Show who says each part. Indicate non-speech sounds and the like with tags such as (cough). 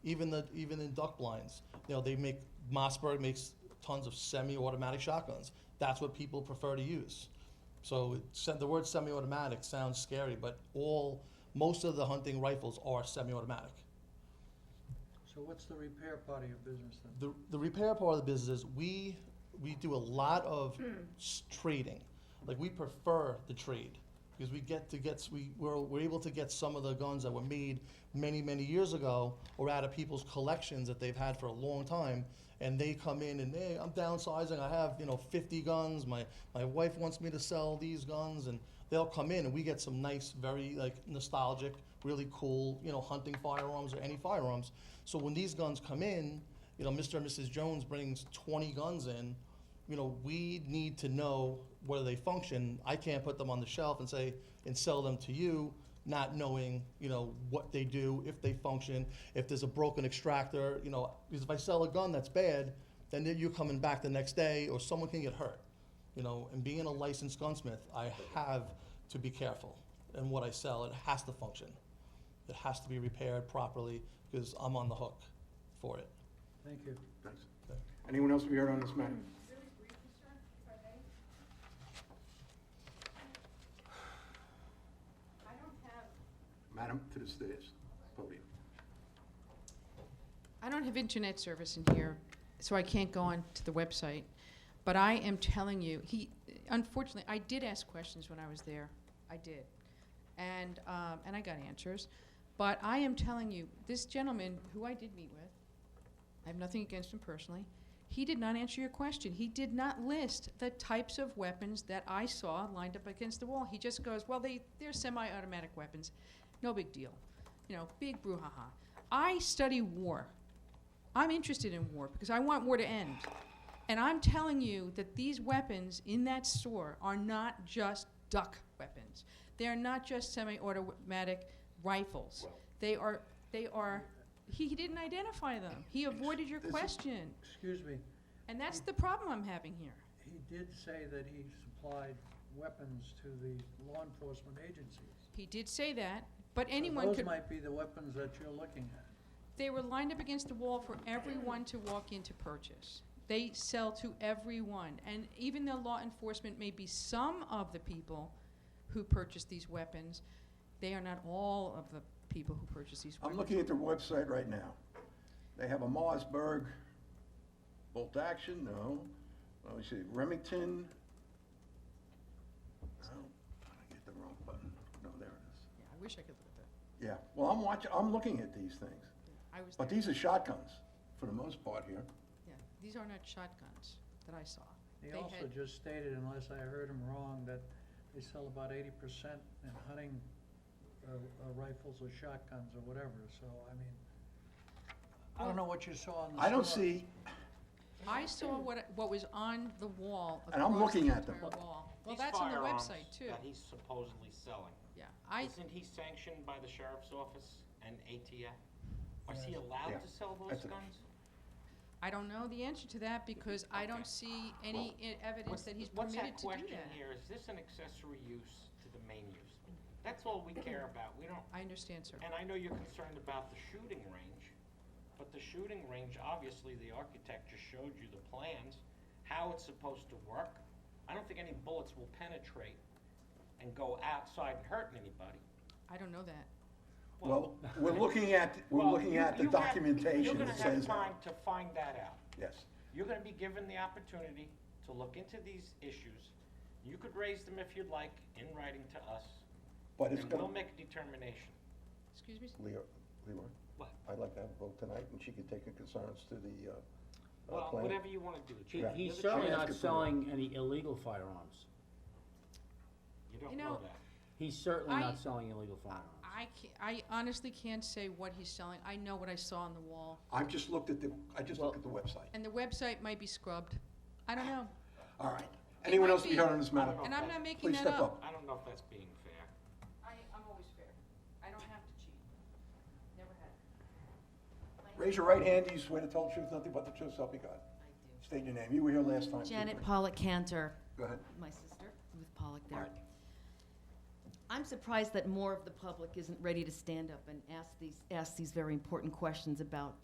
Speaker 1: Even the, even in duck blinds, you know, they make, Mossberg makes tons of semi-automatic shotguns. That's what people prefer to use. So it said, the word semi-automatic sounds scary, but all, most of the hunting rifles are semi-automatic.
Speaker 2: So what's the repair part of your business then?
Speaker 1: The, the repair part of the business is we, we do a lot of s- trading. Like we prefer the trade because we get to get, s- we, we're, we're able to get some of the guns that were made many, many years ago or out of people's collections that they've had for a long time. And they come in and, hey, I'm downsizing. I have, you know, 50 guns. My, my wife wants me to sell these guns. And they'll come in and we get some nice, very like nostalgic, really cool, you know, hunting firearms or any firearms. So when these guns come in, you know, Mr. and Mrs. Jones brings 20 guns in, you know, we need to know whether they function. I can't put them on the shelf and say, and sell them to you, not knowing, you know, what they do, if they function, if there's a broken extractor, you know, because if I sell a gun that's bad, then you're coming back the next day or someone can get hurt. You know, and being a licensed gunsmith, I have to be careful in what I sell. It has to function. It has to be repaired properly because I'm on the hook for it.
Speaker 2: Thank you.
Speaker 3: Thanks. Anyone else to be heard on this matter? Madam, to the stairs, podium.
Speaker 4: I don't have internet service in here, so I can't go on to the website. But I am telling you, he, unfortunately, I did ask questions when I was there. I did. And, um, and I got answers. But I am telling you, this gentleman, who I did meet with, I have nothing against him personally, he did not answer your question. He did not list the types of weapons that I saw lined up against the wall. He just goes, well, they, they're semi-automatic weapons. No big deal. You know, big brouhaha. I study war. I'm interested in war because I want war to end. And I'm telling you that these weapons in that store are not just duck weapons. They are not just semi-automatic rifles.
Speaker 3: Well-
Speaker 4: They are, they are, he, he didn't identify them. He avoided your
Speaker 3: This is-
Speaker 4: question.
Speaker 2: Excuse me,
Speaker 4: And that's the problem I'm having here.
Speaker 2: he did say that he supplied weapons to the law enforcement agencies. So
Speaker 4: He did say that, but anyone
Speaker 2: Those
Speaker 4: could,
Speaker 2: might be the weapons that you're looking at.
Speaker 4: they were lined up against the wall for everyone to walk in to purchase. They sell to everyone, and even though law enforcement may be some of the people who purchase these weapons, they are not all of the people who purchase these
Speaker 3: I'm
Speaker 4: weapons.
Speaker 3: looking at their website right now. They have a Mossberg bolt action, no. Let me see, Remington. No, I get the wrong button. No, there it
Speaker 4: Yeah, I wish I could look at
Speaker 3: is. Yeah, well, I'm watching, I'm looking at these things.
Speaker 4: that. I was
Speaker 3: But
Speaker 4: there.
Speaker 3: these are shotguns, for the most part here.
Speaker 4: Yeah, these are not shotguns that I saw.
Speaker 2: He
Speaker 4: They
Speaker 2: also
Speaker 4: had-
Speaker 2: just stated, unless I heard him wrong, that they sell about eighty percent in hunting uh, uh, rifles or shotguns or whatever, so I mean, I don't know what you saw in the
Speaker 3: I don't
Speaker 2: store.
Speaker 3: see,
Speaker 4: I saw what, I- what was on the wall.
Speaker 3: And I'm
Speaker 4: across
Speaker 3: looking
Speaker 4: the
Speaker 3: at them.
Speaker 4: entire wall. Well,
Speaker 5: These
Speaker 4: that's on the
Speaker 5: firearms
Speaker 4: website too.
Speaker 5: That he's supposedly selling.
Speaker 4: Yeah, I,
Speaker 5: Isn't he sanctioned by the sheriff's office and ATF? Is he
Speaker 3: Yeah.
Speaker 5: allowed to sell those
Speaker 3: That's a-
Speaker 5: guns?
Speaker 4: I don't know the answer to that because I don't see any i- evidence
Speaker 5: What's-
Speaker 4: that he's
Speaker 5: What's
Speaker 4: permitted
Speaker 5: that
Speaker 4: to do
Speaker 5: question
Speaker 4: that.
Speaker 5: here? Is this an accessory use to the main use? That's all we
Speaker 4: (clears throat)
Speaker 5: care about. We don't,
Speaker 4: I understand, sir.
Speaker 5: and I know you're concerned about the shooting range, but the shooting range, obviously, the architect just showed you the plans, how it's supposed to work. I don't think any bullets will penetrate and go outside and hurt anybody.
Speaker 4: I don't know that.
Speaker 3: well, we're looking at, we're
Speaker 5: Well,
Speaker 3: looking
Speaker 5: you-
Speaker 3: at the
Speaker 5: you have-
Speaker 3: documentation that
Speaker 5: You're gonna have
Speaker 3: says,
Speaker 5: time to find that out.
Speaker 3: yes.
Speaker 5: You're gonna be given the opportunity to look into these issues. You could raise them if you'd like in writing to us,
Speaker 3: But it's
Speaker 5: and
Speaker 3: gonna,
Speaker 5: we'll make a determination.
Speaker 4: Excuse me? s-
Speaker 3: Leor, Leroy?
Speaker 5: What?
Speaker 3: I'd like to have a vote tonight, and she can take her concerns to the, uh, uh,
Speaker 5: Well,
Speaker 3: plan.
Speaker 5: whatever you wanna do,
Speaker 6: He-
Speaker 5: Chief.
Speaker 3: Yeah.
Speaker 6: He's
Speaker 5: You're the
Speaker 6: certainly
Speaker 3: Ask
Speaker 5: chairman.
Speaker 6: not
Speaker 3: it for-
Speaker 6: selling any illegal firearms.
Speaker 5: You
Speaker 4: You
Speaker 5: don't know
Speaker 4: know-
Speaker 5: that.
Speaker 6: He's certainly
Speaker 4: I-
Speaker 6: not selling illegal firearms.
Speaker 4: I can't, I honestly can't say what he's selling. I know what I saw on the wall.
Speaker 3: I've just looked at the, I just looked at the website.
Speaker 4: And the website might be scrubbed. I don't know.
Speaker 3: All right. Anyone
Speaker 4: might
Speaker 3: else to be
Speaker 4: be-
Speaker 3: heard on this matter?
Speaker 4: And I'm not making
Speaker 3: Please
Speaker 4: that
Speaker 3: step
Speaker 4: up.
Speaker 3: up.
Speaker 5: I don't know if that's being fair.
Speaker 4: I, I'm always fair. I don't have to cheat. Never have.
Speaker 3: Raise your right hand. Do you swear to tell the truth, nothing but the truth, so help you God?
Speaker 7: I
Speaker 3: State your name. You were here last time.
Speaker 7: do.
Speaker 3: too.
Speaker 7: Janet Pollock Cantor,
Speaker 3: Go ahead.
Speaker 7: my sister, Ruth Pollock there.
Speaker 3: Right.
Speaker 7: I'm surprised that more of the public isn't ready to stand up and ask these, ask these very important questions about